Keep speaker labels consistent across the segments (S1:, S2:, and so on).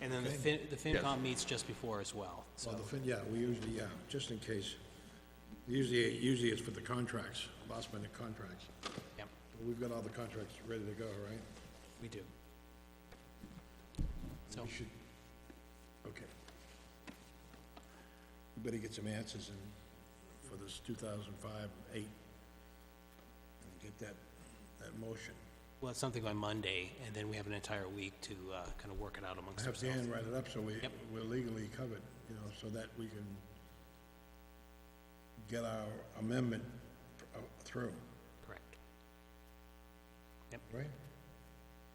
S1: And then the Fin, the FinCom meets just before as well, so.
S2: Well, the fin, yeah, we usually, yeah, just in case. Usually, usually it's for the contracts, last minute contracts.
S1: Yep,
S2: We've got all the contracts ready to go, right?
S1: we do. So,
S2: We should, okay. We better get some answers in, for this two thousand five, eight. And get that, that motion.
S1: well, it's something by Monday, and then we have an entire week to, uh, kind of work it out amongst
S2: Have
S1: ourselves.
S2: Dan write it up so we,
S1: Yep.
S2: we're legally covered, you know, so that we can get our amendment uh, through,
S1: Correct.
S2: right?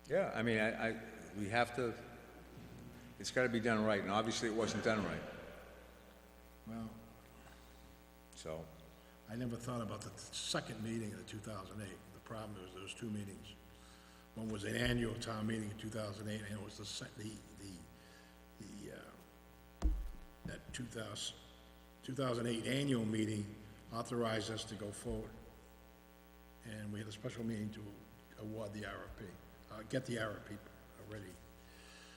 S3: Yeah, I mean, I, I, we have to, it's gotta be done right, and obviously it wasn't done right,
S2: Well,
S3: so,
S2: I never thought about the second meeting of two thousand eight. The problem was there was two meetings. One was an annual town meeting in two thousand eight, and it was the sec, the, the, the, uh, that 2000 2008 annual meeting authorized us to go forward. And we had a special meeting to award the RFP, uh, get the RFP ready.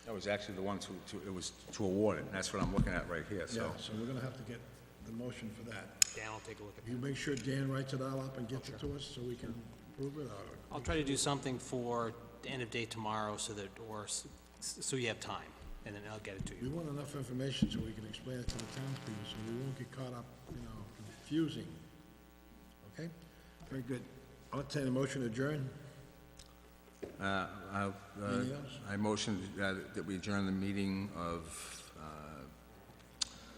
S3: that was actually the one to, to, it was to award it, and that's what I'm looking at right here,
S2: Yeah,
S3: so.
S2: so we're gonna have to get the motion for that.
S1: Dan will take a look at
S2: You
S1: that.
S2: make sure Dan writes it all up and gets it to us so we can prove it, or
S1: I'll try to do something for the end of day tomorrow so that, or, s- so you have time, and then I'll get it to
S2: We
S1: you.
S2: want enough information so we can explain it to the townspeople, so we won't get caught up, you know, confusing. Okay? Very good. I'll entertain a motion to adjourn.
S3: Uh, I, uh,
S2: Anything else?
S3: I motioned that, that we adjourn the meeting of, uh,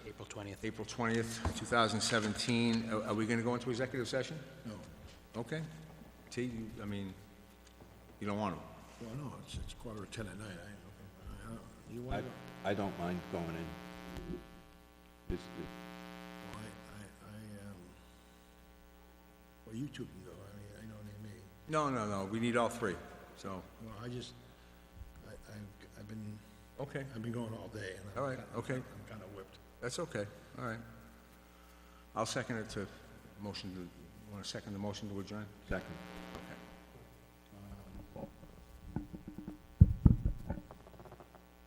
S1: April twentieth.
S3: April twentieth, two thousand seventeen. Are, are we gonna go into executive session?
S2: No.
S3: Okay. T, you, I mean, you don't want to.
S2: Well, no, it's, it's quarter to ten at night. I, I don't, you want
S4: I,
S2: to go?
S4: I don't mind going in. It's, it-
S2: I, I, I, um, well, you two can go. I mean, I know what I mean.
S3: No, no, no, we need all three, so,
S2: Well, I just, I, I've, I've been,
S3: okay,
S2: I've been going all day and I'm.
S3: All right,
S2: kinda-
S3: okay.
S2: I'm kind of whipped.
S3: that's okay, all right. I'll second it to, motion to, want to second the motion to adjourn?
S4: second.
S3: Okay.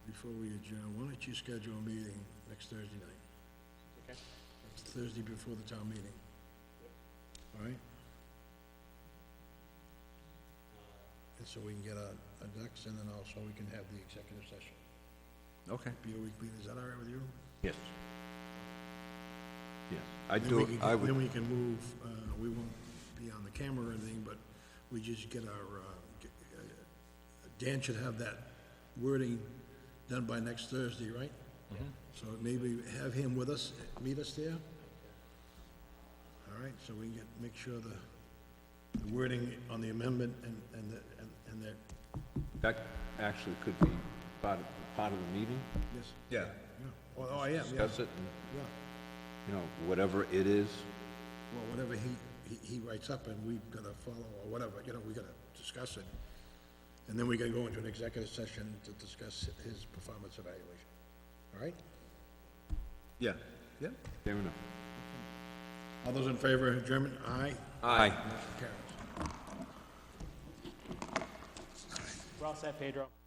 S2: Before we adjourn, why don't you schedule a meeting next Thursday night? Next Thursday before the town meeting. All right? And so we can get our, our ducks in and also we can have the executive session.
S3: Okay.
S2: Be a week meeting, is that all right with you?
S4: Yes. Yes, I
S2: Then
S4: do,
S2: we can-
S4: I
S2: Then
S4: would,
S2: we can move, uh, we won't be on the camera or anything, but we just get our, uh, get- uh, Dan should have that wording done by next Thursday, right?
S4: Mm-hmm.
S2: So maybe have him with us, meet us there? All right, so we can get, make sure the the wording on the amendment and, and, the- and- and that,
S4: that actually could be part of, part of the meeting,
S2: yes,
S3: Yeah.
S2: yeah. Oh, oh, I am, yeah,
S4: discuss it, and,
S2: yeah.
S4: you know, whatever it is,
S2: Well, whatever he, he- he writes up and we've got to follow, or whatever, you know, we got to discuss it. And then we got to go into an executive session to discuss his performance evaluation. All right?
S3: Yeah, yeah.
S4: fair enough.
S2: All those in favor of adjournment, aye?
S3: Aye.
S2: Motion carries.
S1: We're all set, Pedro.